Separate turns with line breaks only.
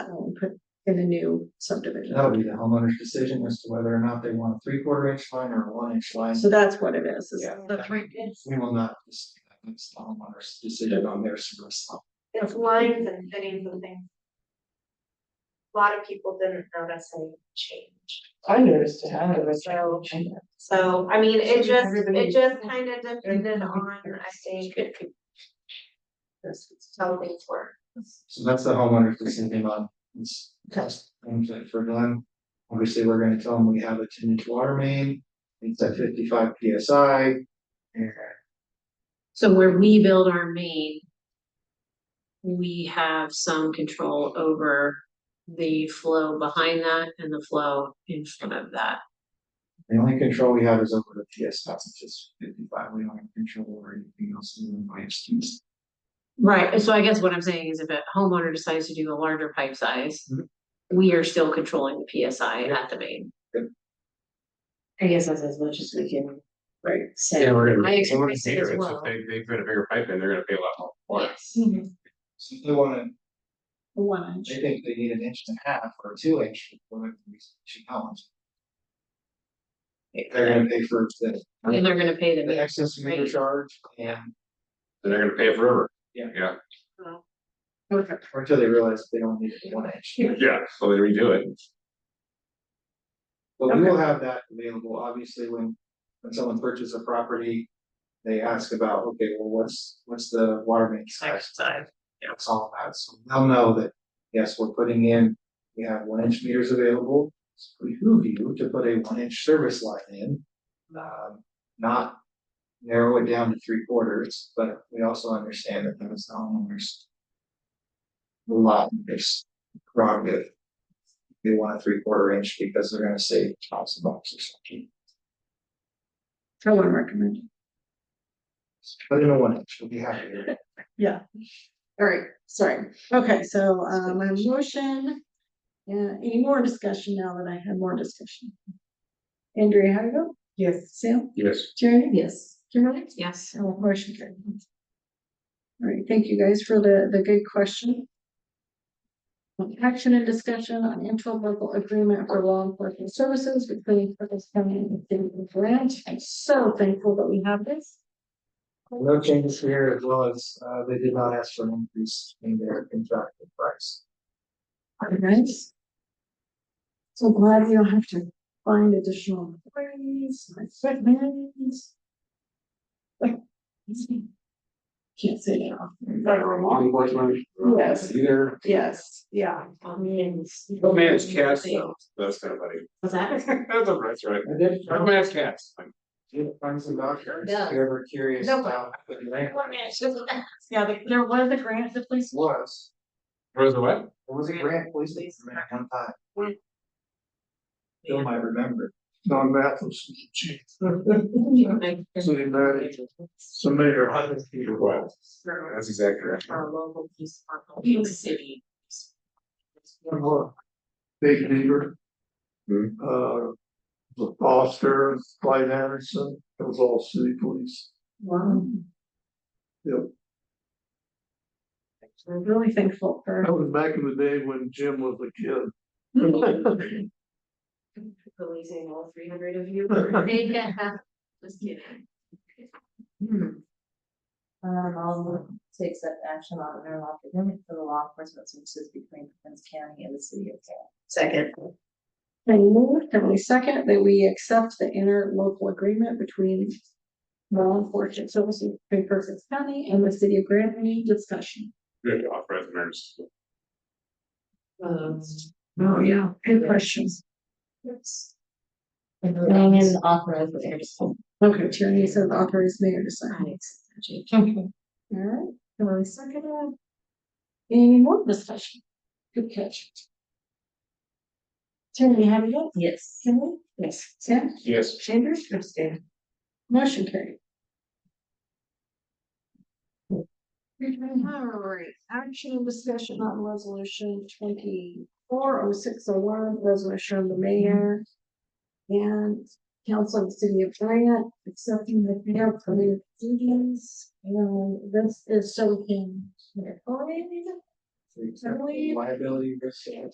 um, put in a new subdivision.
That would be the homeowner's decision as to whether or not they want a three quarter inch line or a one inch line.
So that's what it is, is
Yeah.
the three,
We will not, dis- it's the homeowner's decision on their service.
It's lines and fittings and things. A Lot of people didn't notice any change,
I noticed it, I don't know,
so,
I know.
so, I mean, it just,
Everybody-
it just kind of depended on, I think. How things were.
So that's the homeowner's decision on this cost that for them. Obviously, we're gonna tell them we have a ten inch water main, it's at fifty five PSI. And
So where we build our main. We have some control over the flow behind that and the flow in front of that.
the only control we have is over the PSI, which is fifty five, we don't have control over anything else in the way of students.
Right, so I guess what I'm saying is if a homeowner decides to do a larger pipe size.
Mhm.
We are still controlling the PSI at the main.
I guess that's as much as we can.
Right.
Say.
we're
I experienced it as well.
If they, they put a bigger pipe in, they're gonna pay a lot more for it.
Yes.
So they wanna,
Mm, the one inch.
they think they need an inch and a half or two inch, whatever we should count. They're gonna pay for the.
And they're gonna pay the
The
main.
excess meter
Right.
charge and
Then they're gonna pay it forever.
Yeah.
Yeah,
or until they realize they don't need one inch.
yeah, so they redo it.
But we will have that available, obviously, when, when someone purchases a property. They ask about, okay, well, what's, what's the water main size? It's all about, so they'll know that, yes, we're putting in, we have one inch meters available. It's behoove you to put a one inch service line in. Um, not narrow it down to three quarters, but we also understand that that is the homeowners. A lot, there's prerogative. They want a three quarter inch because they're gonna save lots of bucks or something.
So one recommended.
Put in a one inch, we'll be happy.
Yeah. All right, sorry. Okay, so uh my motion. Yeah, any more discussion now that I had more discussion? Andrea, how do you go? Yes. Sam?
Yes.
Jerry?
Yes.
Kimberly? Oh,
Yes,
So motion carried. All right, thank you guys for the, the good question. Um, Action and discussion on interlocal agreement for law enforcement services between Curtis County and the state of Grant. I'm so thankful that we have this.
No changes here as well as, uh, they did not ask for an increase in their contracted price.
All right. So glad we don't have to find additional employees, and equipment. Can't say that.
Better law enforcement.
Yes.
Either,
Yes, yeah.
I mean.
don't manage cats though, that's kind of funny.
Was that?
That's all right, that's right.
I did,
Don't manage cats. Like,
did find some vouchers,
Yeah.
if you're ever curious
No.
about what the land
Yeah, there- there was a grant that place.
was.
Rose, what?
It was a grant police department at one time. Bill might remember.
Don Mathis was the chief. So they managed some mayor, hundred feet
Your
away.
what? That's exactly right.
Our local police department, city.
Big Beaver.
Hmm.
Uh, the Foster, Clyde Anderson, it was all city police.
Wow.
Yep.
We're really thankful for.
That was back in the day when Jim was a kid.
Policing all three hundred of you.
Yeah.
Just kidding.
Hmm. Um, I'll to accept action on an interlock agreement for the law enforcement services between Prince County and the city of Carroll.
Second.
And moved, and we second that we accept the interlocal agreement between law enforcement services between Perkins County and the city of Grand Any discussion.
Good, off prisoners.
Um,
Oh, yeah, good questions.
And authorize the
Okay, Tierney says authorize mayor to sign.
mayor.
All right, Kimberly seconded. Any more discussion? Good catch. Tierney, have you got,
Yes.
Kimberly? Yes. Sam?
Yes.
Chambers? Abstain. Motion carried. Alright, action and discussion on resolution twenty-four oh six oh one, resolution of the mayor. And council of the city of Bryant accepting the mayor permitted duties, and this is so we can.
Liability risk.